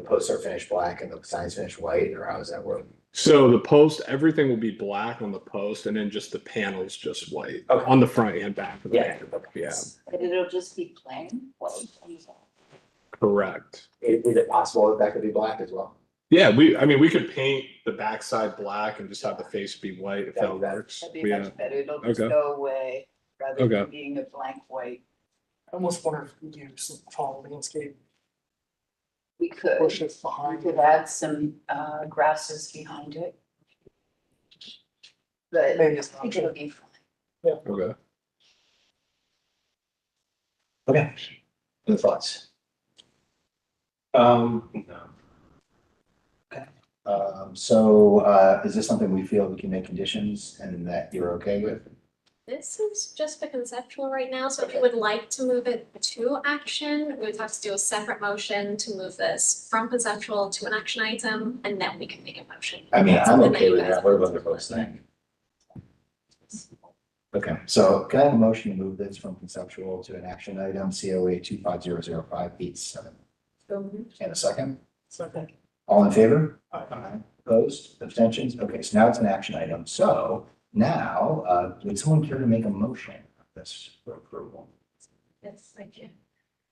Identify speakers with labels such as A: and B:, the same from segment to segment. A: posts are finished black and the signs finished white, or how does that work?
B: So the post, everything will be black on the post and then just the panels just white
A: Okay.
B: on the front and back. of the
A: Yeah.
B: panel. Yeah,
C: But it'll just be plain white.
B: correct.
A: Is, is it possible that that could be black as well?
B: Yeah, we, I mean, we could paint the backside black and just have the face be white if that
A: That'd be better.
B: works.
C: That'd be
B: Yeah,
C: much better. It'll just
B: Okay.
C: go away rather than
B: Okay.
C: being a blank white.
D: I almost wonder if we do some tall landscape
C: We could, we
D: bushes behind.
C: could add some uh grasses behind it. But I
D: Maybe it's not
C: think it'll
D: true.
C: be fine.
B: okay.
A: Okay. Any thoughts?
E: Um, no.
A: Um, so, uh, is this something we feel we can make conditions and that you're okay with?
F: This is just a conceptual right now, so if you would like to move it to action, we would have to do a separate motion to move this from conceptual to an action item, and then we can make a motion.
A: I mean, I'm
F: Something that
A: okay
F: you
A: with
F: guys
A: that. What
F: want
A: about
F: to
A: the
F: do.
A: folks think? Okay, so can I have a motion to move this from conceptual to an action item, COA two five zero zero five eight seven? And a second?
D: Second.
A: All in favor? Aye. Opposed, abstentions? Okay, so now it's an action item. So now, uh, would someone care to make a motion of this for approval?
G: Yes, I can.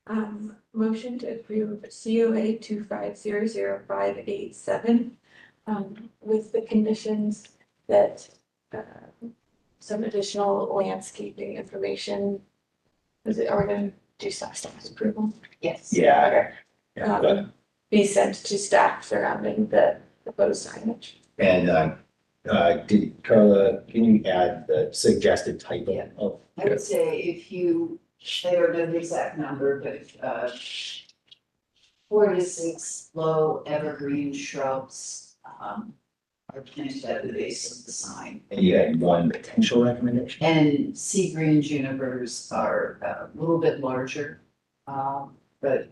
G: Um, motion to approve COA two five zero zero five eight seven, um, with the conditions that, uh, some additional landscaping information. Is it, are we gonna do staff staff approval?
C: Yes.
A: Yeah. Yeah,
G: Um,
A: but-
G: Be sent to staff surrounding the proposed signage.
E: And, uh, uh, did Carla, can you add the suggested title of
C: I would say if you, I don't know the exact number, but uh. Four to six low evergreen shrubs, um, are planted at the base of the sign.
E: And you
A: uh,
E: had one potential recommendation?
C: And sea green junipers are uh, a little bit larger. Um, but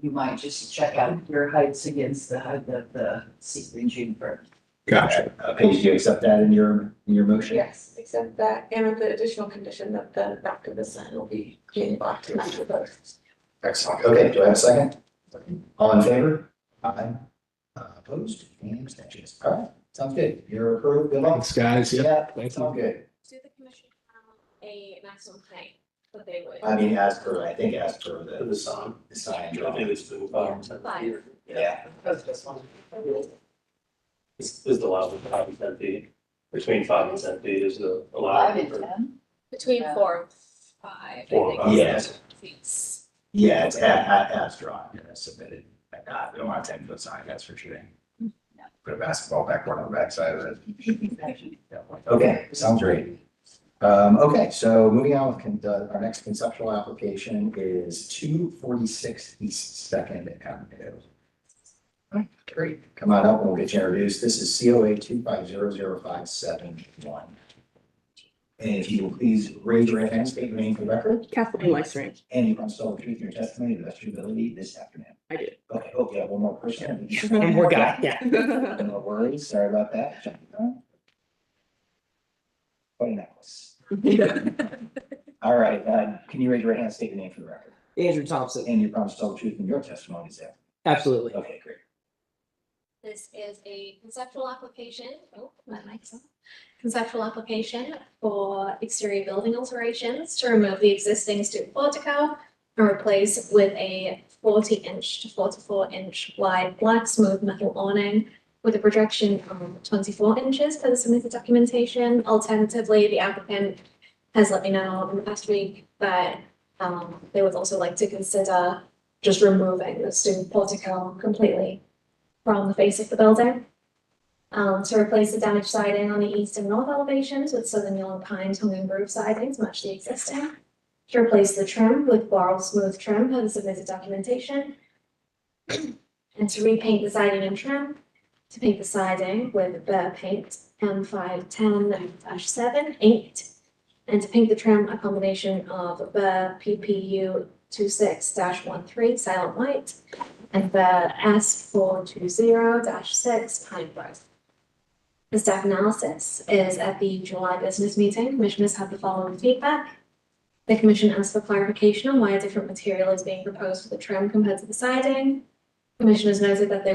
C: you might just check out your heights against the height of the sea green juniper.
B: Gotcha.
E: Uh, Paige, do you accept that in your, in your motion?
G: Yes, except that, and with the additional condition that the back of the sign will be green blocked and not proposed.
A: Excellent. Okay, do I have a second? All in favor? Aye. Uh, Opposed, and abstentions. All right, sounds good. You're approved. Good luck.
B: Thanks, guys. Yeah,
A: Yeah,
B: thank
A: it's all
B: you.
A: good.
F: Do the commission have a maximum height that they would?
A: I mean, as per, I think as per the.
H: The sign.
A: The sign
H: I think
A: drawing.
H: it's been about ten
F: Five.
H: years.
A: Yeah.
D: That's the best one.
H: Is, is the allowable five and ten feet? Between five and ten feet is the
C: Five
H: allowable.
C: and
H: for-
C: ten?
F: Between
C: Yeah.
F: four and five, I
H: Four,
F: think.
H: uh,
A: yes.
F: It's-
A: Yeah, it's a- a- as drawn, yeah, as submitted. I got- we don't want a ten foot sign, that's for shooting.
C: No.
A: Put a basketball backboard on the backside of it. Okay, sounds great. Um, okay, so moving on with con- uh, our next conceptual application is two forty-six East Second Avenue. All right, Great, come on up and we'll get you introduced. This is COA two five zero zero five seven one. And if you will please raise your hand, state your name for the record,
I: Kathleen Lysering,
A: and you promise to tell the truth in your testimony to the best of your ability this afternoon.
I: I do.
A: Okay, oh, yeah, one more person.
I: One more guy,
A: No worries, sorry about that. What an hours. All right, uh, can you raise your hand, and state your name for the record?
I: Andrew Thompson,
A: And you promise to tell the truth in your testimony, is that?
I: absolutely.
A: Okay, great.
F: This is a conceptual application, oh, my mic's on. Conceptual application for exterior building alterations to remove the existing stoop portico and replace with a forty inch to forty-four inch wide black smooth metal awning with a projection of twenty-four inches per the submitted documentation. Alternatively, the applicant has let me know in the past week that um they would also like to consider just removing the stoop portico completely from the face of the building. Um, to replace the damaged siding on the east and north elevations with southern yellow pine tongue and groove sidings, much the existing. To replace the trim with floral smooth trim per the submitted documentation. And to repaint the siding and trim, to paint the siding with Burr Paint M five ten dash seven eight. And to paint the trim, a combination of Burr PPU two six dash one three silent white and the S four two zero six Pine Grove. The staff analysis is at the July business meeting, commissioners have the following feedback. The commission asked for clarification on why a different material is being proposed for the trim compared to the siding. Commissioners noted that they